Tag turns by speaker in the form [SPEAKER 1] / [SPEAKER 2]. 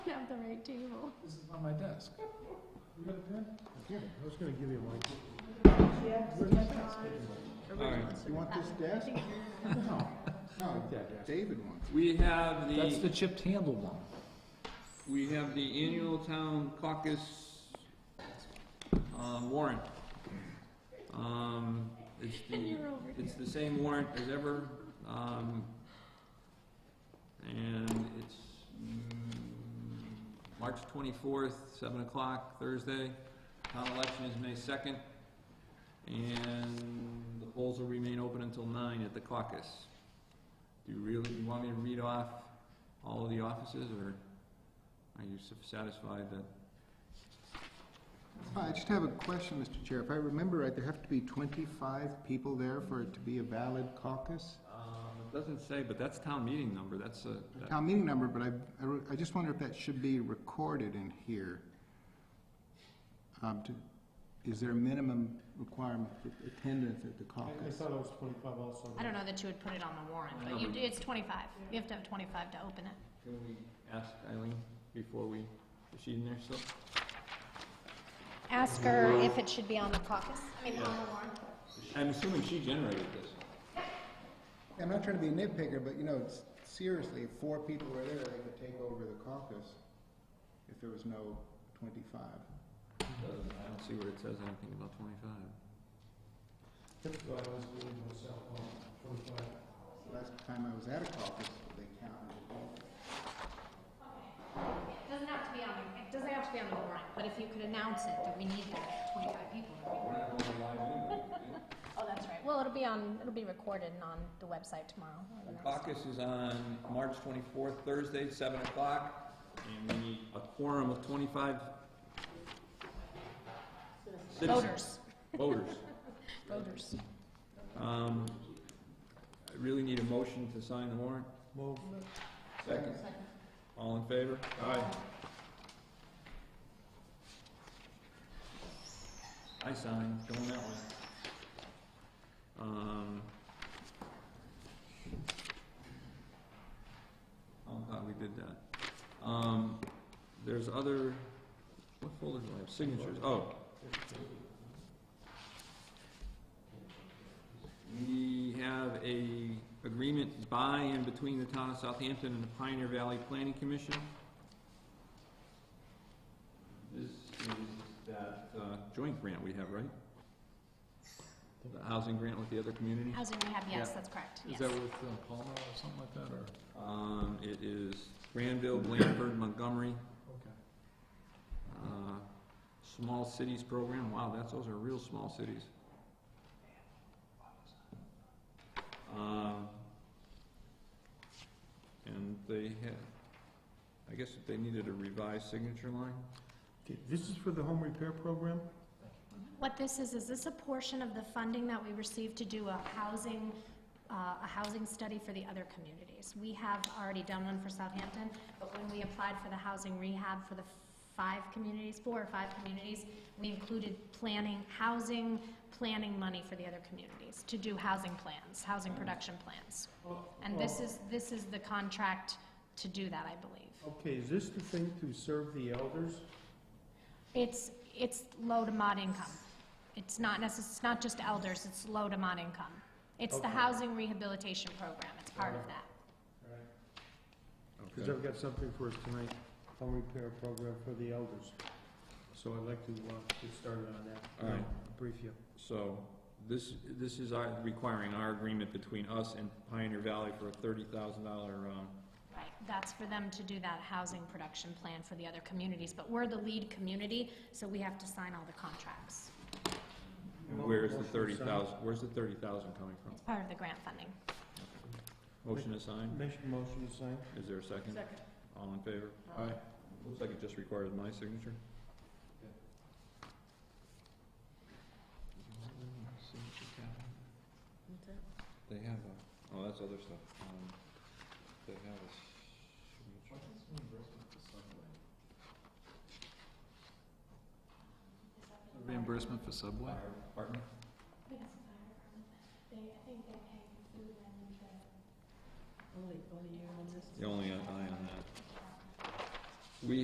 [SPEAKER 1] have the right table.
[SPEAKER 2] This is on my desk.
[SPEAKER 3] Yeah, I was gonna give you mine.
[SPEAKER 2] All right.
[SPEAKER 3] You want this desk?
[SPEAKER 2] No,
[SPEAKER 3] No, David wants.
[SPEAKER 4] We have
[SPEAKER 2] that's the
[SPEAKER 4] the,
[SPEAKER 2] chipped handle one.
[SPEAKER 4] we have the annual town caucus um, warrant. Um, It's
[SPEAKER 1] And
[SPEAKER 4] the,
[SPEAKER 1] you're over
[SPEAKER 4] it's the same warrant as ever. um, And it's mm, March 24th, 7 o'clock, Thursday. Town election is May 2nd. And the polls will remain open until 9 at the caucus. Do you really, you want me to read off all of the offices, or are you satisfied that?
[SPEAKER 3] I just have a question, Mr. Chair. If I remember right, there have to be twenty-five people there for it to be a valid caucus?
[SPEAKER 4] Um, It doesn't say, but that's town meeting number, that's a, that-
[SPEAKER 3] Town meeting number, but I- I, re- I just wonder if that should be recorded in here. Um, to, is there a minimum requirement for attendance at the caucus?
[SPEAKER 5] thought it was twenty-five also.
[SPEAKER 1] I don't know that you would put it on the warrant, but you, it's twenty-five. You have to have twenty-five to open it.
[SPEAKER 4] Can we ask Eileen before we, is she in there still?
[SPEAKER 1] Ask her if it should be on the caucus. I mean, on the warrant.
[SPEAKER 4] I'm assuming she generated this.
[SPEAKER 3] I'm not trying to be a nitpicker, but you know, it's- seriously, if four people were there, they could take over the caucus if there was no twenty-five.
[SPEAKER 4] Doesn't- I don't see where it says anything about twenty-five.
[SPEAKER 5] Typically, I was doing myself on twenty-five.
[SPEAKER 3] Last time I was at a caucus, they counted it all.
[SPEAKER 1] It doesn't have to be on, the- it doesn't have to be on the warrant, but if you could announce it, that we need that twenty-five people. that'd be great. Oh, that's right. Well, it'll be on, it'll be recorded and on the website tomorrow. or the
[SPEAKER 4] The
[SPEAKER 1] next-
[SPEAKER 4] caucus is on March twenty-fourth, Thursday, seven o'clock, and we need a quorum of twenty-five citizens.
[SPEAKER 1] Voters,
[SPEAKER 4] Voters.
[SPEAKER 1] voters.
[SPEAKER 4] Um, I really need a motion to sign the warrant.
[SPEAKER 5] Move.
[SPEAKER 4] Second. All in favor? Aye. I signed, going that way. Um. Oh, God, we did that. Um, there's other, what folder do I have? Signatures, oh. We have a agreement by and between the town of Southampton and the Pioneer Valley Planning Commission. This is that uh, joint grant we have, right? The housing grant with the other community?
[SPEAKER 1] Housing rehab, yes,
[SPEAKER 2] Yeah.
[SPEAKER 1] that's correct,
[SPEAKER 2] Is
[SPEAKER 1] yes.
[SPEAKER 2] that with uh, Palmer or something like that, or?
[SPEAKER 4] Um, it is Granville, Blandford, Montgomery,
[SPEAKER 2] Okay.
[SPEAKER 4] uh, small cities program, wow, that's, those are real small cities. Um, and they had, I guess if they needed a revised signature line,
[SPEAKER 5] This is for the home repair program?
[SPEAKER 1] What this is, is this a portion of the funding that we received to do a housing, uh, a housing study for the other communities? We have already done one for Southampton, but when we applied for the housing rehab for the five communities, four or five communities, we included planning, housing, planning money for the other communities to do housing plans, housing production plans.
[SPEAKER 5] Oh,
[SPEAKER 1] And this is, this is the contract to do that, I believe.
[SPEAKER 5] Okay, is this the thing to serve the elders?
[SPEAKER 1] It's, it's low to mod income. It's not necess, it's not just elders, it's low to mod income. It's the
[SPEAKER 5] Okay.
[SPEAKER 1] housing rehabilitation program, it's part of
[SPEAKER 5] Alright.
[SPEAKER 1] that.
[SPEAKER 5] Because I've got something for us tonight, home repair program for the elders. So I'd like to, uh, get started on that.
[SPEAKER 4] All right.
[SPEAKER 5] I'll Brief you.
[SPEAKER 4] so this, this is our, requiring our agreement between us and Pioneer Valley for a thirty thousand dollar, um,
[SPEAKER 1] Right, that's for them to do that housing production plan for the other communities, but we're the lead community, so we have to sign all the contracts.
[SPEAKER 4] and where's the
[SPEAKER 5] Motion to
[SPEAKER 4] thirty
[SPEAKER 5] sign.
[SPEAKER 4] thousand, where's the thirty thousand coming from?
[SPEAKER 1] It's part of the grant funding.
[SPEAKER 4] Motion assigned,
[SPEAKER 5] Make a motion to sign.
[SPEAKER 4] is there a second?
[SPEAKER 1] Second.
[SPEAKER 4] All in favor?
[SPEAKER 2] Aye.
[SPEAKER 4] Looks like it just requires my signature. They have a, oh, that's other stuff. Um, They have a signature.
[SPEAKER 2] Reimbursement for subway?
[SPEAKER 4] Fire department? The only uh, I on